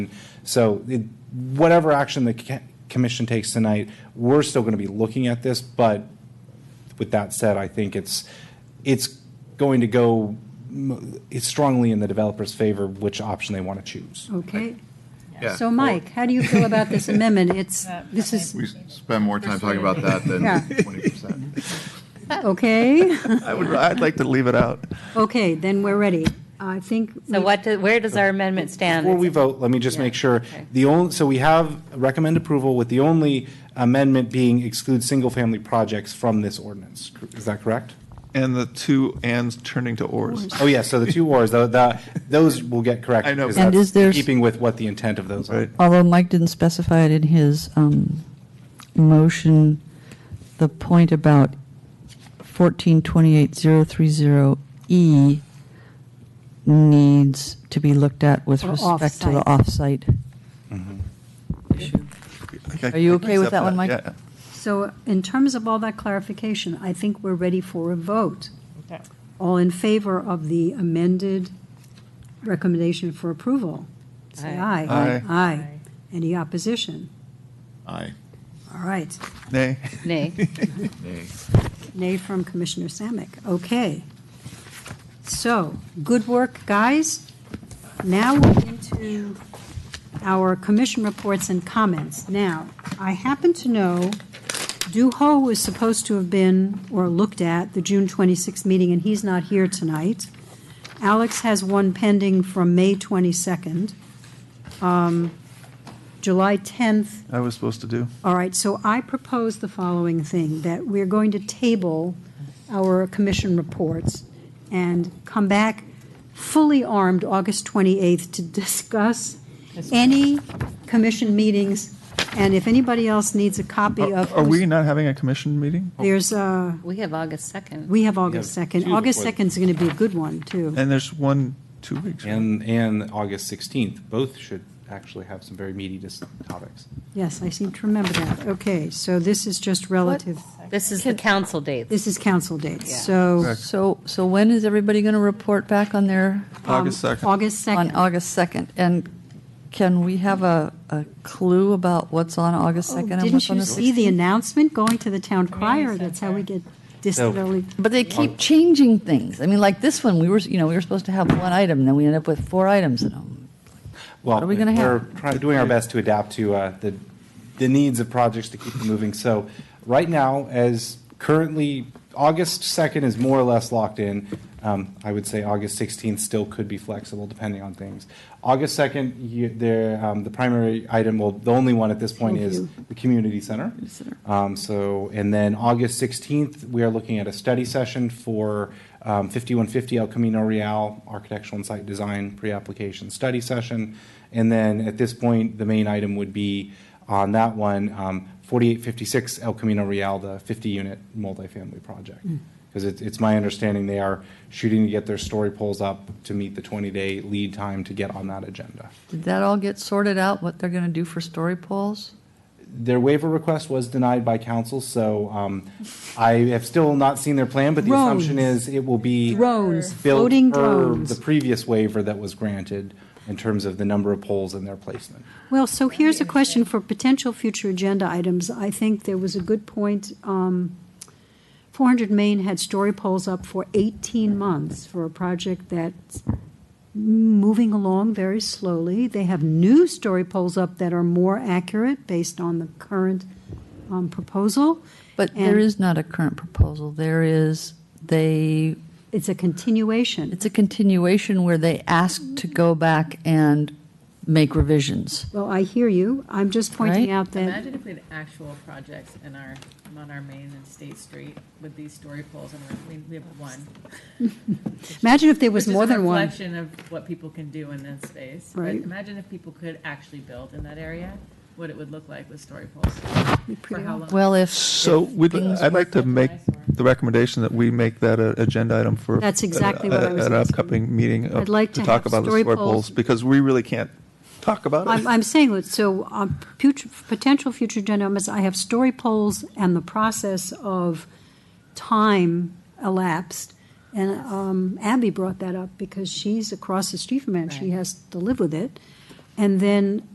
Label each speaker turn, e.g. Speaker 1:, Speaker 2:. Speaker 1: So it- whatever action the ca- commission takes tonight, we're still going to be looking at this, but with that said, I think it's, it's going to go m- it's strongly in the developer's favor which option they want to choose.
Speaker 2: Okay.
Speaker 3: Yeah.
Speaker 2: So Mike, how do you feel about this amendment? It's, this is,
Speaker 3: We spend more time talking about that than
Speaker 2: Yeah.
Speaker 3: 20%.
Speaker 2: okay,
Speaker 4: I would, I'd like to leave it out.
Speaker 2: okay, then we're ready. I think,
Speaker 5: So
Speaker 2: we-
Speaker 5: what, do- where does our amendment stand?
Speaker 1: Before we vote, let me just make sure,
Speaker 5: okay.
Speaker 1: the only, so we have recommend approval with the only amendment being exclude single-family projects from this ordinance. Is that correct?
Speaker 4: And the two ands turning to ors.
Speaker 1: Oh, yeah, so the two wars, tho- that, those will get corrected.
Speaker 4: I know.
Speaker 1: because
Speaker 6: And
Speaker 1: that's
Speaker 6: is there-
Speaker 1: Keeping with what the intent of those are.
Speaker 4: Right.
Speaker 6: Although Mike didn't specify it in his um, motion, the point about 1428030E E needs to be looked at with
Speaker 2: Or
Speaker 6: respect to the
Speaker 2: off-site.
Speaker 6: off-site. Are you okay with that one, Mike?
Speaker 4: Yeah.
Speaker 2: so in terms of all that clarification, I think we're ready for a vote.
Speaker 5: Okay.
Speaker 2: All in favor of the amended recommendation for approval? Say aye.
Speaker 5: Aye.
Speaker 4: Aye.
Speaker 2: Aye. Any opposition?
Speaker 3: Aye.
Speaker 2: All right.
Speaker 4: Nay.
Speaker 5: Nay.
Speaker 3: Nay.
Speaker 2: Nay from Commissioner Samick. Okay. So, good work, guys. Now we're into our commission reports and comments. Now, I happen to know Duho was supposed to have been, or looked at, the June 26th meeting, and he's not here tonight. Alex has one pending from May 22nd. Um, July 10th
Speaker 4: I was supposed to do.
Speaker 2: all right, so I propose the following thing, that we're going to table our commission reports and come back fully armed August 28th to discuss any commission meetings, and if anybody else needs a copy
Speaker 4: Are
Speaker 2: of.
Speaker 4: are we not having a commission meeting?
Speaker 2: There's, uh,
Speaker 5: We have August 2nd.
Speaker 2: we have August 2nd.
Speaker 1: two
Speaker 2: August
Speaker 1: before-
Speaker 2: 2nd is going to be a good one, too.
Speaker 4: And there's one, two weeks. right?
Speaker 1: And, and August 16th, both should actually have some very meaty dis- topics.
Speaker 2: Yes, I seem to remember that. Okay, so this is just relative,
Speaker 5: This is the council date.
Speaker 2: this is council dates,
Speaker 5: Yeah.
Speaker 2: so.
Speaker 6: So, so when is everybody going to report back on their,
Speaker 2: um,
Speaker 4: August 2nd.
Speaker 2: August 2nd.
Speaker 6: on August 2nd? And can we have a, a clue about what's on August
Speaker 2: Oh,
Speaker 6: 2nd and
Speaker 2: Didn't
Speaker 6: what's on
Speaker 2: you
Speaker 6: the
Speaker 2: see
Speaker 6: 16th?
Speaker 2: the announcement going to the town crier? That's how we get
Speaker 1: So-
Speaker 2: distant early.
Speaker 6: But they keep changing things. I mean, like this one, we were, you know, we were supposed to have one item, and then we ended up with four items in them.
Speaker 1: Well,
Speaker 6: What are we gonna have?
Speaker 1: We're trying, doing our best to adapt to uh, the, the needs of projects to keep them moving. So right now, as currently, August 2nd is more or less locked in. Um, I would say August 16th still could be flexible depending on things. August 2nd, you, there, um, the primary item, well, the only one at this point is the community center. Um, so, and then August 16th, we are looking at a study session for um, 5150 El Camino Real Architectural and Site Design Pre-Application Study Session. And then at this point, the main item would be on that one, um, 4856 El Camino Real, the 50-unit multifamily project. Because it's, it's my understanding they are shooting to get their story polls up to meet the 20-day lead time to get on that agenda.
Speaker 6: Did that all get sorted out, what they're going to do for story polls?
Speaker 1: Their waiver request was denied by council, so um, I have still not seen their plan, but the assumption
Speaker 2: Drones.
Speaker 1: is it will be.
Speaker 2: Drones,
Speaker 1: built
Speaker 2: floating
Speaker 1: per
Speaker 2: drones.
Speaker 1: The previous waiver that was granted in terms of the number of poles and their placement.
Speaker 2: Well, so here's a question for potential future agenda items. I think there was a good point. um, 400 Main had story polls up for 18 months for a project that's moving along very slowly. They have new story polls up that are more accurate based on the current um, proposal.
Speaker 6: But there
Speaker 2: And-
Speaker 6: is not a current proposal. There is, they,
Speaker 2: It's a continuation.
Speaker 6: it's a continuation where they asked to go back and make revisions.
Speaker 2: Well, I hear you. I'm just pointing
Speaker 6: Right?
Speaker 2: out that.
Speaker 7: Imagine if we had actual projects in our, on our main and state street with these story poles, and we, we have one.
Speaker 2: Imagine if there was
Speaker 7: Which is
Speaker 2: more
Speaker 7: a
Speaker 2: than one.
Speaker 7: Reflection of what people can do in that space. But
Speaker 2: Right.
Speaker 7: Imagine if people could actually build in that area, what it would look like with story poles. For how long?
Speaker 6: Well, if.
Speaker 4: So we'd, I'd like to make the recommendation that we make that an agenda item for.
Speaker 2: That's exactly what I
Speaker 4: a-
Speaker 2: was
Speaker 4: An
Speaker 2: asking.
Speaker 4: upcoming meeting of-
Speaker 2: I'd like to
Speaker 4: to talk
Speaker 2: have
Speaker 4: about the
Speaker 2: story
Speaker 4: story
Speaker 2: polls.
Speaker 4: polls, because we really can't talk about it.
Speaker 2: I'm, I'm saying that, so um, future, potential future agenda items, I have story polls and the process of time elapsed. And um, Abby brought that up because she's across the street from it and she has to live with it. And then